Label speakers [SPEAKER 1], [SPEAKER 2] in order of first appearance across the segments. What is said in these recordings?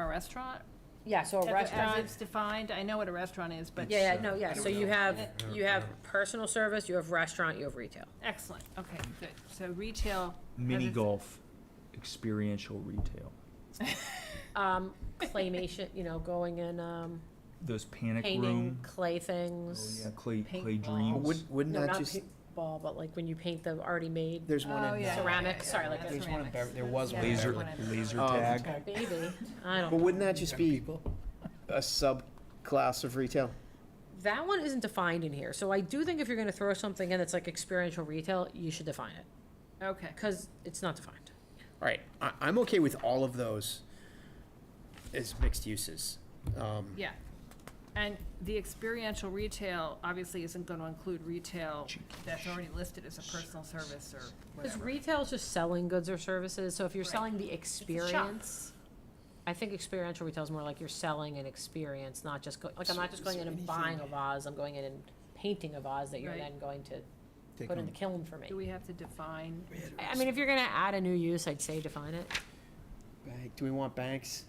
[SPEAKER 1] A restaurant?
[SPEAKER 2] Yeah, so a
[SPEAKER 1] As
[SPEAKER 2] restaurant,
[SPEAKER 1] it's defined, I know what a restaurant is, but.
[SPEAKER 2] yeah, yeah, no, yeah, so you have, you have personal service, you have restaurant, you have retail.
[SPEAKER 1] Excellent, okay, good. So retail. has
[SPEAKER 3] Mini
[SPEAKER 1] its-
[SPEAKER 3] golf, experiential retail.
[SPEAKER 2] Um, claymation, you know, going in, um,
[SPEAKER 3] Those panic
[SPEAKER 2] painting
[SPEAKER 3] room.
[SPEAKER 2] clay
[SPEAKER 3] Oh,
[SPEAKER 2] things.
[SPEAKER 3] yeah, clay, clay
[SPEAKER 1] Paintball.
[SPEAKER 4] But
[SPEAKER 3] dreams.
[SPEAKER 4] Wouldn't, wouldn't
[SPEAKER 2] No,
[SPEAKER 4] that
[SPEAKER 2] not
[SPEAKER 4] just,
[SPEAKER 2] paintball, but like when you paint the already made,
[SPEAKER 4] there's one
[SPEAKER 1] Oh,
[SPEAKER 4] in,
[SPEAKER 1] yeah,
[SPEAKER 4] uh,
[SPEAKER 2] Ceramic,
[SPEAKER 1] yeah, yeah,
[SPEAKER 2] sorry,
[SPEAKER 1] yeah,
[SPEAKER 2] like
[SPEAKER 1] that's
[SPEAKER 4] there's one in
[SPEAKER 1] ceramics.
[SPEAKER 4] Bever- there was
[SPEAKER 1] Yeah,
[SPEAKER 4] one in
[SPEAKER 1] that's
[SPEAKER 3] Laser,
[SPEAKER 1] one in
[SPEAKER 3] laser
[SPEAKER 1] Beverly.
[SPEAKER 4] Um,
[SPEAKER 3] tag.
[SPEAKER 2] oh, baby, I
[SPEAKER 4] but
[SPEAKER 2] don't,
[SPEAKER 4] wouldn't that just be a subclass of retail?
[SPEAKER 2] that one isn't defined in here, so I do think if you're gonna throw something in that's like experiential retail, you should define it,
[SPEAKER 1] Okay,
[SPEAKER 2] cause it's not defined.
[SPEAKER 4] All right, I, I'm okay with all of those as mixed uses. Um,
[SPEAKER 1] yeah. And the experiential retail obviously isn't going to include retail that's already listed as a personal service or
[SPEAKER 2] Because
[SPEAKER 1] whatever.
[SPEAKER 2] retail is just selling goods or services, so if you're
[SPEAKER 1] Right.
[SPEAKER 2] selling the
[SPEAKER 1] It's a shop.
[SPEAKER 2] experience, I think experiential retail is more like you're selling an experience, not just, go- like, I'm not just going in and buying a vase, I'm going in and painting a vase that you're
[SPEAKER 1] Right.
[SPEAKER 2] then going to
[SPEAKER 4] take
[SPEAKER 2] put in
[SPEAKER 4] on-
[SPEAKER 2] the kiln for me.
[SPEAKER 1] Do we have to define?
[SPEAKER 2] I I mean, if you're gonna add a new use, I'd say define it.
[SPEAKER 4] Bank- Do we want banks?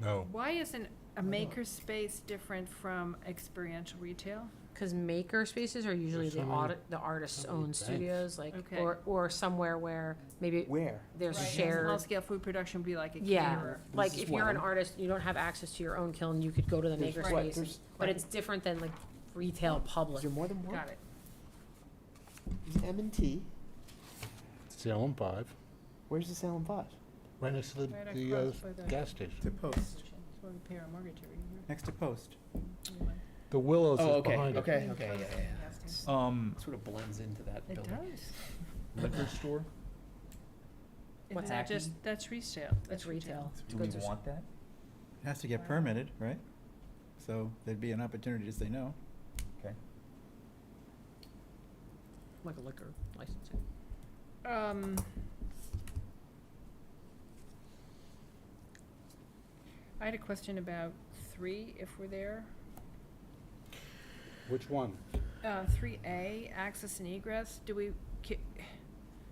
[SPEAKER 4] Oh.
[SPEAKER 5] No.
[SPEAKER 1] Why isn't a maker space different from experiential retail?
[SPEAKER 2] Cause maker spaces are usually the
[SPEAKER 5] so many-
[SPEAKER 2] aut- the artist's own
[SPEAKER 5] banks.
[SPEAKER 2] studios, like,
[SPEAKER 1] Okay.
[SPEAKER 2] or, or somewhere where maybe
[SPEAKER 4] Where?
[SPEAKER 2] there's
[SPEAKER 1] Right,
[SPEAKER 2] shared.
[SPEAKER 1] Small-scale food production would be like a
[SPEAKER 2] Yeah,
[SPEAKER 1] caterer.
[SPEAKER 2] like
[SPEAKER 4] This is
[SPEAKER 2] if you're an
[SPEAKER 4] one.
[SPEAKER 2] artist, you don't have access to your own kiln, you could go to the
[SPEAKER 4] There's-
[SPEAKER 2] maker
[SPEAKER 4] right,
[SPEAKER 2] space,
[SPEAKER 4] there's-
[SPEAKER 2] but it's different than like retail
[SPEAKER 4] Is
[SPEAKER 2] public.
[SPEAKER 4] there more than one?
[SPEAKER 1] Got it.
[SPEAKER 4] There's M and T.
[SPEAKER 5] Salem Five,
[SPEAKER 4] Where's the Salem Five?
[SPEAKER 5] right next to the,
[SPEAKER 1] Right
[SPEAKER 5] the uh,
[SPEAKER 1] across by the-
[SPEAKER 5] gas station.
[SPEAKER 6] To post,
[SPEAKER 1] pay our mortgage every year.
[SPEAKER 6] next to post.
[SPEAKER 5] The Willows
[SPEAKER 4] Oh,
[SPEAKER 5] is
[SPEAKER 4] okay,
[SPEAKER 5] behind it.
[SPEAKER 4] okay, okay, yeah, yeah, yeah.
[SPEAKER 1] Yes.
[SPEAKER 3] Um,
[SPEAKER 4] Sort of blends into that
[SPEAKER 1] It
[SPEAKER 4] building.
[SPEAKER 1] does.
[SPEAKER 3] liquor store.
[SPEAKER 2] What's
[SPEAKER 1] Isn't that
[SPEAKER 2] happening?
[SPEAKER 1] just, that's resale.
[SPEAKER 2] That's retail.
[SPEAKER 3] Do we
[SPEAKER 2] Goods or s-
[SPEAKER 3] want that?
[SPEAKER 6] It Has to get permitted, right? So there'd be an opportunity to say no.
[SPEAKER 2] Like a liquor licensing.
[SPEAKER 1] Um. I had a question about three, if we're there.
[SPEAKER 5] Which one?
[SPEAKER 1] Uh, three A, access and egress, do we, ki-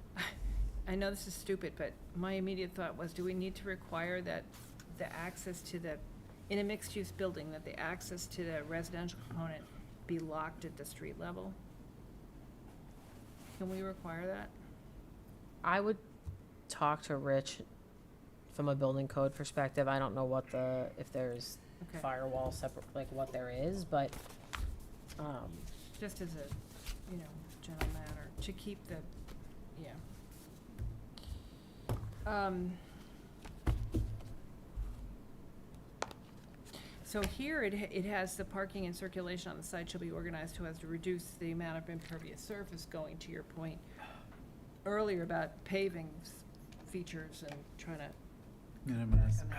[SPEAKER 1] I know this is stupid, but my immediate thought was, do we need to require that the access to the, in a mixed-use building, that the access to the residential component be locked at the street level? Can we require that?
[SPEAKER 2] I would talk to Rich from a building code perspective. I don't know what the, if there's
[SPEAKER 1] Okay,
[SPEAKER 2] firewall separate, like what there is, but, um,
[SPEAKER 1] just as a, you know, general matter, to keep the, yeah. Um. So here it, ha- it has the parking and circulation on the site shall be organized so as to reduce the amount of impervious surface going to your point earlier about paving s- features and trying to
[SPEAKER 6] Minimize. yeah.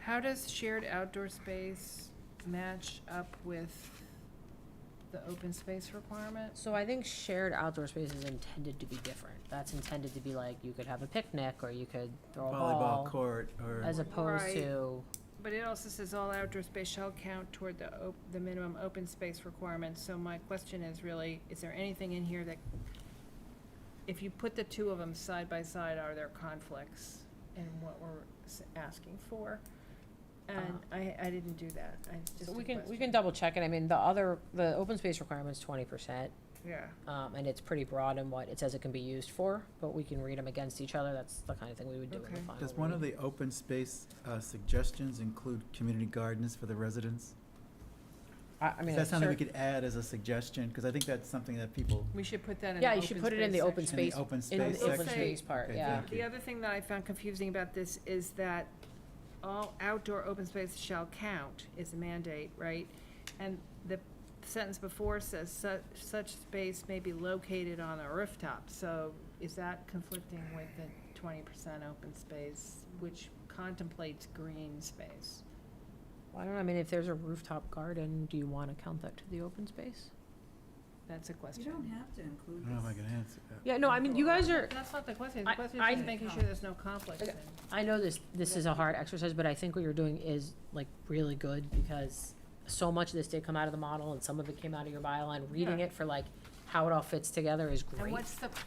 [SPEAKER 1] How does shared outdoor space match up with the open space requirement?
[SPEAKER 2] So I think shared outdoor space is intended to be different. That's intended to be like, you could have a picnic, or you could throw a
[SPEAKER 6] Volleyball
[SPEAKER 2] ball,
[SPEAKER 6] court or,
[SPEAKER 2] as opposed
[SPEAKER 1] Right.
[SPEAKER 2] to,
[SPEAKER 1] But it also says all outdoor space shall count toward the op- the minimum open space requirement, so my question is really, is there anything in here that, if you put the two of them side by side, are there conflicts in what we're s- asking for? And I, I didn't do that, I just
[SPEAKER 2] so
[SPEAKER 1] a
[SPEAKER 2] we can, we
[SPEAKER 1] question.
[SPEAKER 2] can double check it. I mean, the other, the open space requirement's twenty percent.
[SPEAKER 1] Yeah,
[SPEAKER 2] Um, and it's pretty broad in what it says it can be used for, but we can read them against each other. That's the kind of thing we would do in the
[SPEAKER 1] Okay.
[SPEAKER 2] final
[SPEAKER 6] does one of
[SPEAKER 2] read.
[SPEAKER 6] the open space uh, suggestions include community gardens for the residents?
[SPEAKER 2] I, I mean, that's
[SPEAKER 6] Is that something we
[SPEAKER 2] cer-
[SPEAKER 6] could add as a suggestion? Because I think that's something that people,
[SPEAKER 1] we should put that in the
[SPEAKER 2] yeah,
[SPEAKER 1] open
[SPEAKER 2] you should put it in the open
[SPEAKER 1] section.
[SPEAKER 6] in the
[SPEAKER 2] space,
[SPEAKER 6] open
[SPEAKER 2] in
[SPEAKER 6] space
[SPEAKER 2] the open
[SPEAKER 6] section.
[SPEAKER 1] Okay.
[SPEAKER 2] space part,
[SPEAKER 6] Okay,
[SPEAKER 2] yeah.
[SPEAKER 6] thank
[SPEAKER 1] The other thing that I found confusing about this is that all outdoor open space shall count is a mandate, right? And the sentence before says such, such space may be located on a rooftop, so is that conflicting with the twenty percent open space, which contemplates green space?
[SPEAKER 2] Well, I don't know, I mean, if there's a rooftop garden, do you wanna count that to the open space?
[SPEAKER 1] That's a
[SPEAKER 7] You
[SPEAKER 1] question.
[SPEAKER 7] don't have to
[SPEAKER 6] I
[SPEAKER 7] include
[SPEAKER 6] don't know if I
[SPEAKER 7] this.
[SPEAKER 6] can answer that.
[SPEAKER 2] Yeah, no, I mean, you guys are,
[SPEAKER 1] That's not the question, the
[SPEAKER 2] I-
[SPEAKER 1] question
[SPEAKER 2] I-
[SPEAKER 1] is just making sure there's no conflict
[SPEAKER 2] Okay.
[SPEAKER 1] then.
[SPEAKER 2] I know this, this is a hard exercise, but I think what you're doing is like really good because so much of this did come out of the model and some of it came out of your bylaw and reading
[SPEAKER 1] Yeah.
[SPEAKER 2] it for like
[SPEAKER 8] how it all fits together is great.
[SPEAKER 2] And what's the